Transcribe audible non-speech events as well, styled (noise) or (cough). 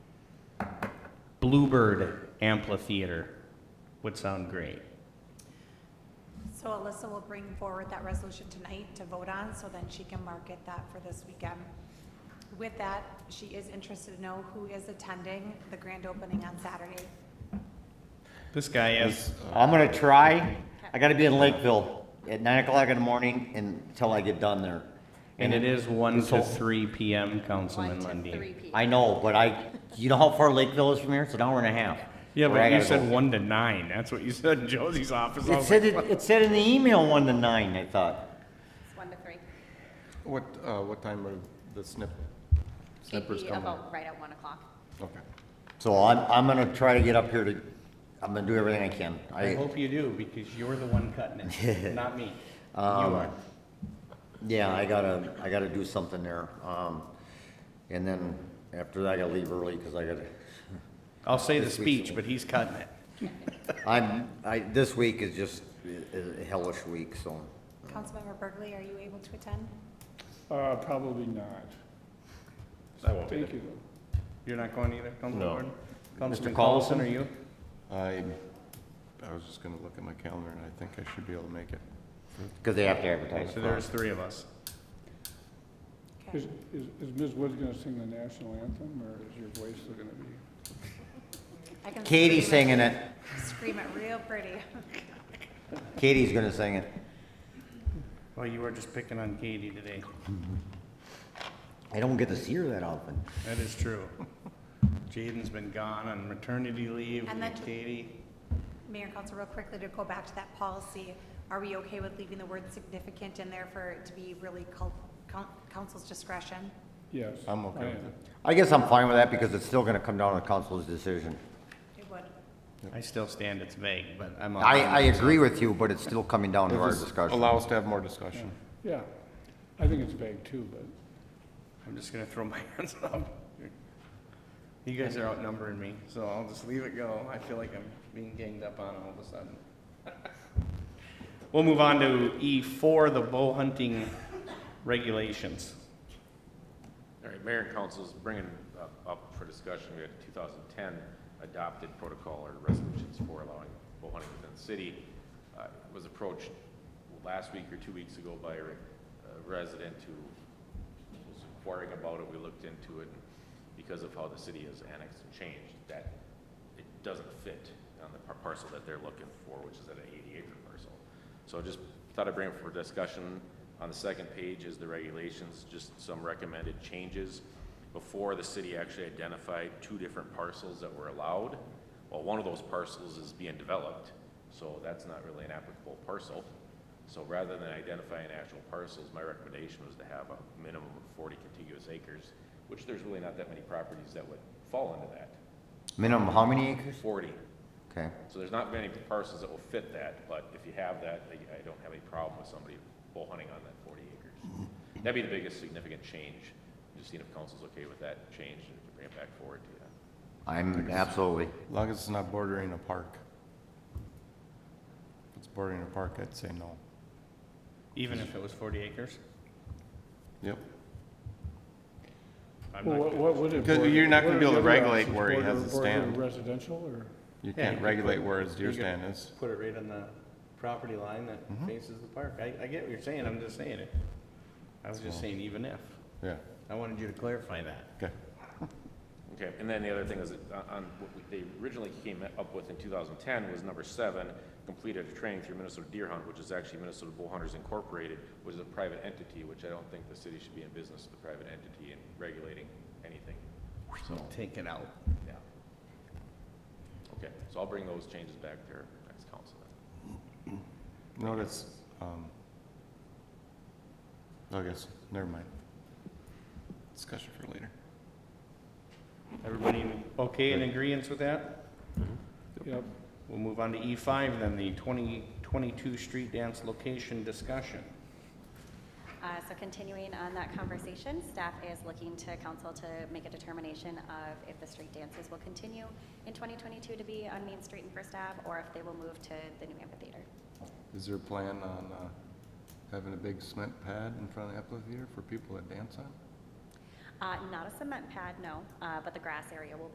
Bluebird Amphitheater would sound great. So Alyssa will bring forward that resolution tonight to vote on, so then she can market that for this weekend. With that, she is interested to know who is attending the grand opening on Saturday. This guy is, Uh, I'm gonna try. I gotta be in Lakeville at nine o'clock in the morning until I get done there. and it is one to So- three PM, Councilman One to three Lundey. p.m. I know, but I, you know how far Lakeville is from here? It's an hour and a half. Yeah, Where I but you gotta said go. one to nine, that's what you said in Josie's office. I It was said, like, it it said in the email one to nine, I thought. It's One to three. What, uh, what time are the snip, It'd snippers be coming? in? about right at one o'clock. Okay. So I'm, I'm gonna try to get up here to, I'm gonna do everything I can. I I, hope you do, because you're the one cutting it, not (laughs) me. You Um, are. yeah, I gotta, I gotta do something there. Um, and then after that, I gotta leave early, cause I gotta, I'll say the This week's speech, the but he's cutting it. I'm, I, this week is just a a hellish week, so. Councilmember Berkeley, are you able to attend? Uh, probably not. I won't be Thank you. You're not going either, Councilman No. Gordon? Councilman Mr. Collison, Collison? are you? I, I was just gonna look at my calendar and I think I should be able to make it. Because they have to advertise. So there's three of us. Is, Okay. is is Ms. Woods gonna sing the national anthem, or is your voice still gonna be? I can Katie's scream singing it- it. Scream it real pretty. Katie's gonna sing it. Well, you were just picking on Katie today. I don't get to see her that often. That is true. (laughs) Jaden's been gone on maternity leave, And then- Katie. Mayor and Council, real quickly to go back to that policy, are we okay with leaving the word significant in there for it to be really cul- coun- council's discretion? Yes. I'm okay I with am. it. I guess I'm fine with that because it's still gonna come down to council's decision. It would. I still stand, it's vague, but I'm. all I, in. I agree with you, but it's still coming down to It'll our just discussion. Allow us to have more discussion. Yeah, I think it's vague too, but I'm just gonna throw my (laughs) hands up. You guys are outnumbering me, so I'll just leave it go. I feel like I'm being ganged up on all of a sudden. (laughs) We'll move on to E four, the bow hunting regulations. All right, Mayor and Council's bringing up- up for discussion, we had 2010 adopted protocol or resolutions for allowing bow hunting within the city. Uh, Was approached last week or two weeks ago by a re- a resident who was inquiring about it. We looked into it, and because of how the city has annexed and changed, that it doesn't fit on the par- parcel that they're looking for, which is at an 80-acre parcel. So just thought I'd bring it for discussion. On the second page is the regulations, just some recommended changes. Before, the city actually identified two different parcels that were allowed. Well, one of those parcels is being developed, so that's not really an applicable parcel. So rather than identifying actual parcels, my recommendation was to have a minimum of 40 contiguous acres, which there's really not that many properties that would fall into that. Minimum, how many acres? 40. Okay. So there's not many parcels that will fit that, but if you have that, I I don't have any problem with somebody bull hunting on that 40 acres. That'd be the biggest significant change. Just seeing if council's okay with that change and if you bring it back forward to you. I'm absolutely, As long as it's not bordering a park. If it's bordering a park, I'd say no. Even if it was forty acres? Yep. I'm Well, not what, good. what would it? Because border- you're not gonna what be are able to the other regulate options? where he Border- has to border stand. Residential, or, You Yeah, you can't could regulate put- where his deer you could stand is. Put it right on the property line that Mm-hmm. faces the park. I, I get what you're saying, I'm just saying it. I was just saying even if. Yeah, I wanted you to clarify that. okay. Okay, and then the other thing is, that on- on, what we- they originally came up with in 2010 was number seven, completed a training through Minnesota Deer Hunt, which is actually Minnesota Bull Hunters Incorporated, which is a private entity, which I don't think the city should be in business with a private entity and regulating anything, so, Take it out. yeah. Okay, so I'll bring those changes back there next council. then. Notice, um, I guess, never mind. Discussion for later. Everybody okay in agreeance with that? yep, We'll move on to E5 then, the 2022 street dance location discussion. Uh, So continuing on that conversation, staff is looking to council to make a determination of if the street dances will continue in 2022 to be on Main Street and First Ave, or if they will move to the new amphitheater. Is there a plan on uh, having a big cement pad in front of the amphitheater for people to dance on? Uh, Not a cement pad, no, uh, but the grass area will be